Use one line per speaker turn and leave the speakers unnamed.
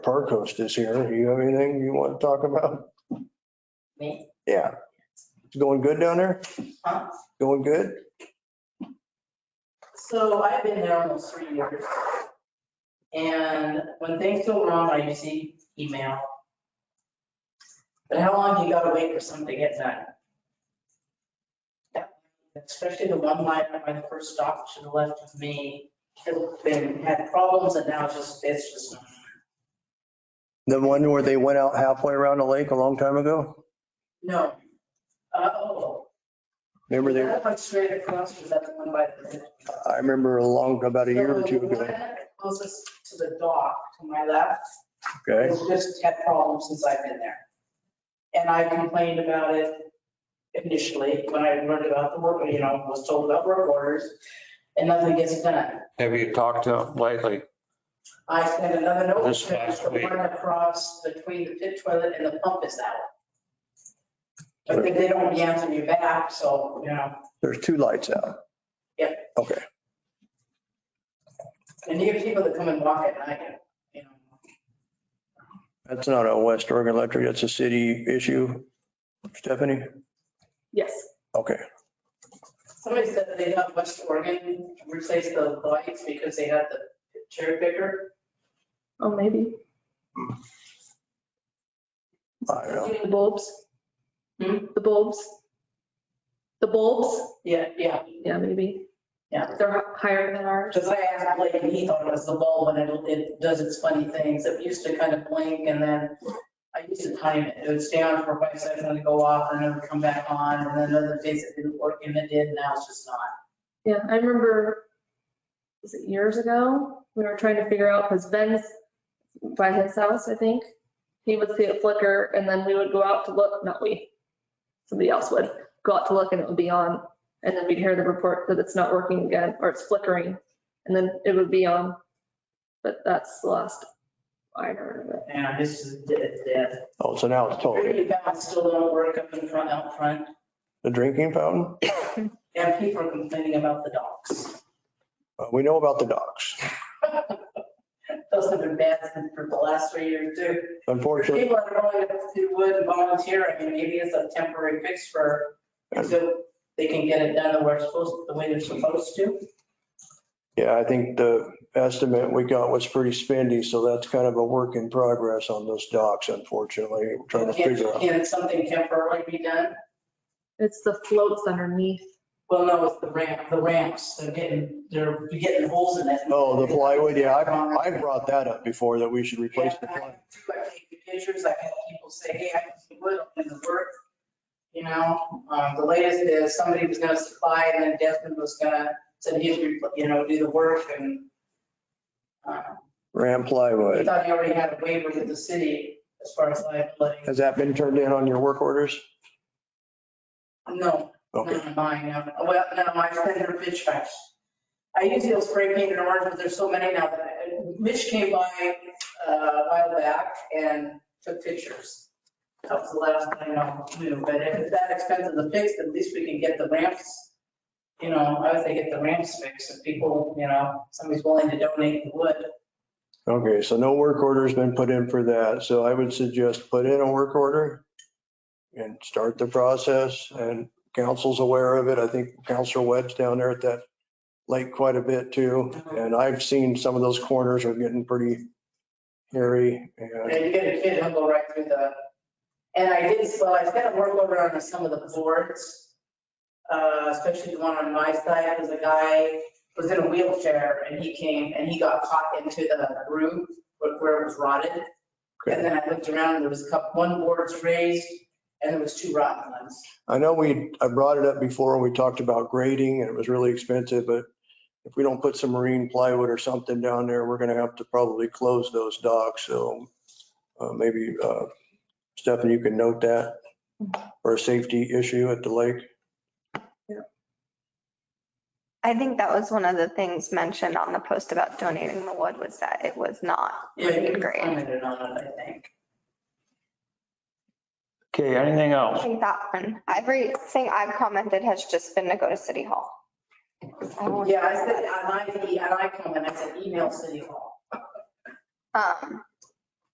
Park Host is here. You have anything you want to talk about?
Me?
Yeah. It's going good down there?
Huh?
Going good?
So I've been there almost three years. And when things go wrong, I receive email. But how long you gotta wait for something to get done? Especially the one line when I first stopped to the left of me, it's been, had problems and now it's just, it's just.
The one where they went out halfway around the lake a long time ago?
No. Uh-oh.
Remember they,
That one straight across was that the one by the.
I remember a long, about a year or two
The
ago.
one Closest to the dock to my left
Okay.
It's just had problems since I've been there. And I complained about it initially when I learned about the work, you know, was told about work orders and nothing gets done.
Have you talked to them lately?
I sent another note,
This last
the
week.
one across between the pit toilet and the pump is out. But they- they don't answer you back, so, you know,
There's two lights out.
Yep.
Okay.
and you get people that come and walk at night, you know.
That's not a West Oregon Electric. That's a city issue. Stephanie?
Yes.
Okay.
Somebody said that they got West Oregon replaced the lights because they had the cherry picker.
Oh, maybe.
I don't know.
You mean The bulbs?
Hmm?
The bulbs? The bulbs?
Yeah, yeah,
Yeah, maybe.
Yeah.
They're hi- higher than ours.
because I asked Blake and he thought it was the bulb and it, it does its funny things. It used to kind of blink and then I used to time it. It would stay on for five seconds and then go off and then it would come back on. And then other days it didn't work and it did, now it's just not.
Yeah, I remember, was it years ago? We were trying to figure out, because Ben's by his house, I think. He would see it flicker and then we would go out to look, not we, somebody else would go out to look and it would be on. And then we'd hear the report that it's not working again or it's flickering and then it would be on. But that's the last I heard of it.
Yeah, it's just dead, dead.
Oh, so now it's totally,
Pretty bad, still don't work up in front, out front.
the drinking fountain?
And people are complaining about the docks.
Uh, We know about the docks.
Those have been bad for the last three years too.
Unfortunately,
People are going to would volunteer, I mean, maybe it's a temporary fix for, so they can get it done where it's supposed, the way they're supposed to.
Yeah, I think the estimate we got was pretty spendy, so that's kind of a work in progress on those docks, unfortunately. We're trying to
Can-
figure out.
Can something temporarily be done?
It's the floats underneath.
Well, no, it's the ramp, the ramps, they're getting, they're getting holes in it.
Oh, the plywood, yeah, I, I brought that up before, that we should replace the
Yeah, I-
plywood.
I take the pictures, I've had people say, hey, I can see wood in the work. You know, um, the latest is somebody was gonna supply and then Desmond was gonna, said he's, you know, do the work and. uh,
Ram
I
plywood.
thought he already had a waiver with the city as far as liability.
Has that been turned in on your work orders?
No,
Okay,
not mine, no. well, no, I sent her pitch back. I usually will spray paint and orange, but there's so many now that, I- Mitch came by uh, a while back and took pictures. That was the last thing I knew, but if it's that expensive to fix, at least we can get the ramps, you know, I would say get the ramps fixed, if people, you know, somebody's willing to donate the wood.
okay, so no work order's been put in for that, so I would suggest put in a work order and start the process, and council's aware of it. I think Councilor Webb's down there at that lake quite a bit too, and I've seen some of those corners are getting pretty hairy, and
And you get a kid, he'll go right through the, and I did, well, I spent a work order on some of the boards, uh, especially the one on my side, because a guy was in a wheelchair and he came and he got caught into the room where- where it was rotted. And then I looked around and there was a couple, one board's raised and there was two rotten ones.
I know we, I brought it up before, we talked about grading and it was really expensive, but if we don't put some marine plywood or something down there, we're gonna have to probably close those docks, so uh, maybe, uh, Stefan, you can note that for a safety issue at the lake.
I think that was one of the things mentioned on the post about donating the wood was that it was not
Yeah,
really great.
Commented on it, I think.
Okay, anything
I
else?
think that one, everything I've commented has just been to go to City Hall. I won't-
Yeah, I said, and I, and I come and I said, email City Hall.
Um,